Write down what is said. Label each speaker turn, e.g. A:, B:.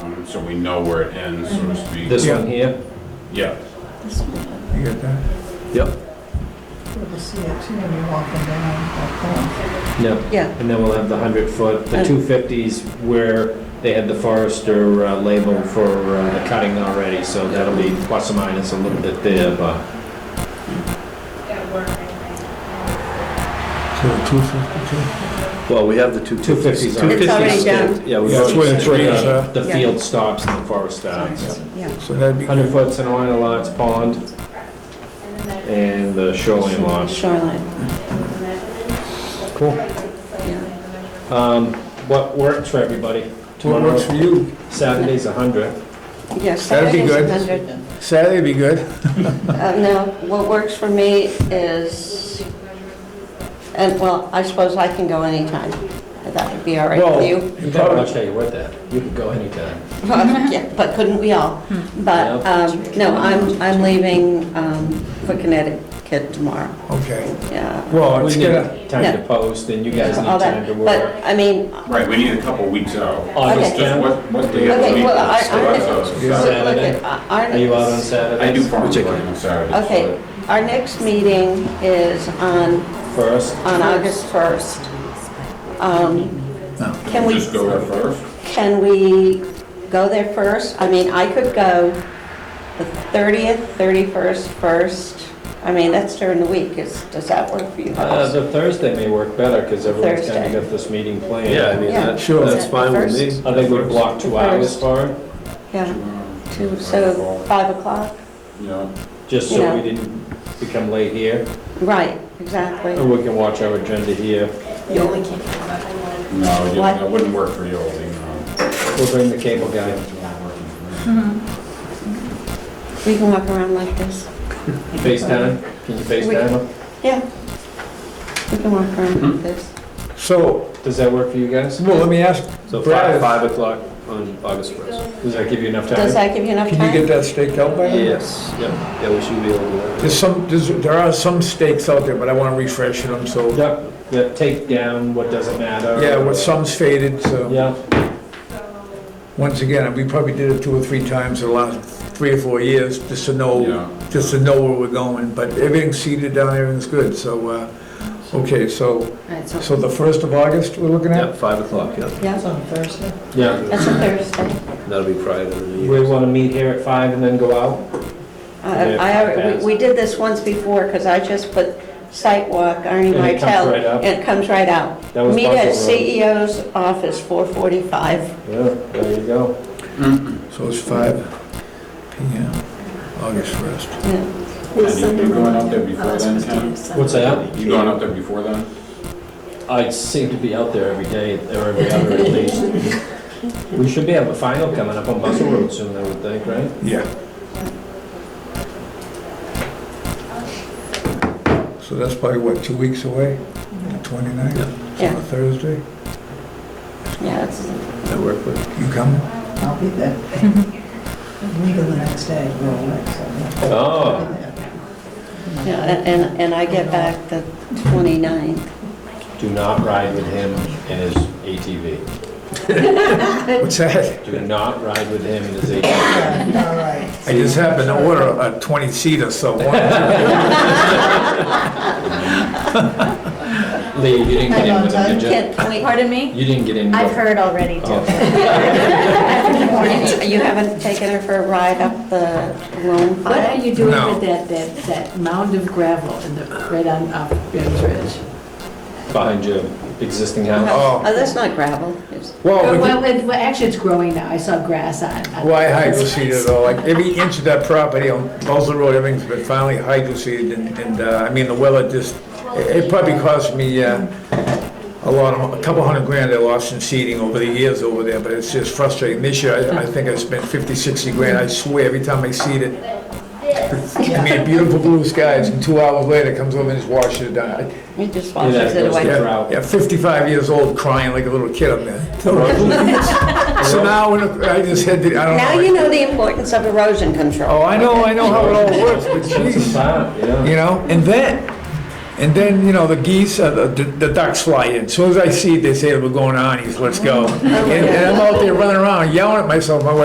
A: Um, so we know where it ends, so to speak.
B: This
C: Yeah.
B: one here?
A: Yeah,
D: This one,
C: You got that?
B: Yep.
D: you'll be see it too when you're walking
B: No.
D: down.
E: Yeah,
B: And then we'll have the 100-foot, the
E: Uh.
B: 250s where they had the forester uh, label for uh, the cutting already, so that'll be plus or minus a little bit there, but
C: So the 252?
F: Well, we have the two
B: 250s are...
E: It's already done.
B: Yeah, we
C: Yeah, that's where it's written, sir.
B: The
E: Yeah.
B: field stops and the forest stops.
E: yeah.
C: So that'd be,
B: 100 foot Sunderland lots, pond, and the shoreline lots.
E: Shoreline,
B: Cool.
E: yeah.
B: Um, What works for everybody?
C: what works for you?
B: Saturday's 100.
E: Yeah,
C: That'd be good.
E: Saturday's 100.
C: Saturday'd be good.
E: Uh, No, what works for me is, and well, I suppose I can go anytime. That would be all right
C: Well,
E: with you.
C: you
B: I'll
C: probably-
B: tell you what, that, you can go anytime.
E: Yeah, But couldn't we all? But,
B: Yeah.
E: um, no, I'm, I'm leaving um, for Connecticut tomorrow,
C: Okay.
E: yeah.
C: Well,
B: We
C: it's
B: need
C: gonna,
B: time to
E: Yeah.
B: post, and you guys need
E: all
B: time
E: that.
B: to
E: But,
B: work.
E: I mean,
A: right, we need a couple weeks out.
B: August
E: Okay.
A: Just
B: 10th,
A: what, what day of the
E: okay,
A: week?
E: well, I,
A: is it?
E: I,
A: So
E: so
A: that's a-
C: Yeah.
E: look at, uh, our
B: are you out on
E: next,
B: Saturday?
A: I do farm
F: Which I
A: work
F: can-
A: on Saturdays.
E: okay, our next meeting is on,
B: First,
E: on August 1st. Um,
C: No.
E: Can
A: so
E: we?
A: Just go there first?
E: Can we go there first? I mean, I could go the 30th, 31st, 1st. I mean, that's during the week. Is, does that work for you
B: Uh,
E: guys?
B: the Thursday may work better, because everyone's kind of
E: Thursday.
B: got this meeting planned.
F: Yeah, I mean,
E: Yeah.
F: that-
C: Sure.
F: that's fine with me.
B: I think we block two hours for it,
E: Yeah, two, so 5 o'clock?
A: Um, Yeah,
B: just so we
E: Yeah.
B: didn't become late here.
E: Right, exactly.
B: And we can watch our agenda here.
A: no, you-
E: What?
A: that wouldn't work for you, Oldie, no.
B: We'll bring the cable guy.
E: We can walk around like this.
B: FaceTime? Can you FaceTime him?
E: Yeah. We can walk around
C: Hmm?
E: like this.
C: so,
B: Does that work for you guys?
C: well, let me ask,
F: So
C: Brad.
F: five, five o'clock on August first.
B: Does that give you enough
E: Does
B: time?
E: that give you enough
C: can you get
E: time?
C: that staked out by then?
F: Yes, yeah, yeah, we should be able to do
C: There's some, there's- there are some stakes out there, but I wanna refresh them, so,
B: Yep, yep, take down what doesn't matter.
C: yeah, well, some's faded, so,
B: Yeah,
C: once again, we probably did it two or three times in the last three or four years, just to
B: Oh.
C: know,
A: Yeah.
C: just to know where we're going, but everything's seeded down, everything's good, so, uh, okay, so,
E: Right,
C: so the first of August we're looking
F: that.
C: at?
F: Yeah, five o'clock, yeah.
D: That's
E: Yeah,
D: on Thursday.
B: yeah.
E: that's a Thursday.
F: That'll be prior to the
B: We
F: meeting.
B: want to meet here at five and then go out?
E: Uh, I, alre- we we did this once before, because I just put sidewalk,
B: And
E: Arnie
B: it comes
E: Martell.
B: right up?
E: and it comes right out.
B: That was
E: Meet at
B: Buzzell Road.
E: CEO's office, 445.
B: Yeah, there you go.
C: So it's five PM, August first.
E: Yeah.
A: And you- you're going up there
E: Oh,
A: before then, Ken?
B: What's that?
A: You going up there before then?
B: I seem to be out there every day, or every other at least. We should be have a final coming up on Muscle Road soon, I would think, right?
C: Yeah. So that's probably, what, two weeks away? Twenty-ninth,
E: Yeah.
C: on a Thursday?
E: Yeah, it's,
F: That work with?
C: You coming?
D: I'll be there. We go the next day, we're all next day.
B: Oh,
D: Uh,
E: yeah, and- and, and I get back the 29th.
B: do not ride with him and his ATV.
C: What's that?
B: Do not ride with him and his ATV.
D: All right.
C: I just happened to order a twenty-seater, so one.
B: Lee, you didn't get in with him, did you?
E: Can can we,
G: Pardon me?
B: You didn't get in.
G: I've
B: with-
G: heard already, too.
B: Oh,
E: you haven't taken her for a ride up the Lone
H: What are
E: Pine?
H: you doing
C: No.
H: with that, that, that mound of gravel in the, right on, up Ben's Ridge?
B: Behind your existing house.
E: Oh,
C: Oh.
E: that's not gravel. It's-
C: Well, Oh, we
H: Well,
C: could-
H: it, well, actually, it's growing now, I saw grass on. on-
C: why hydroseeded though? Like every inch of that property on Buzzell Road, everything's been finally hydroseeded and, and, uh, I mean, the weather just, it it probably cost me, uh, a lot of, a couple hundred grand I lost in seeding over the years over there, but it's just frustrating. This year, I, I think I spent 50, 60 grand, I swear, every time I seed it. I mean, beautiful blue skies, and two hours later, it comes over and just washes it down.
E: It just
B: Yeah, that
E: washes it
B: goes
E: away.
B: down.
C: Yeah, yeah, 55 years old, crying like a little kid up there. So now, when I just had to, I don't know.
E: Now you know the importance of erosion control.
C: Oh, I know, I know how it all works, but
B: It's a
C: jeez,
B: farm, yeah.
C: you know, and then, and then, you know, the geese, uh, the the ducks fly in. As Soon as I see it, they say, we're going on, he's, let's go. And and I'm out there running around yelling at myself, my wife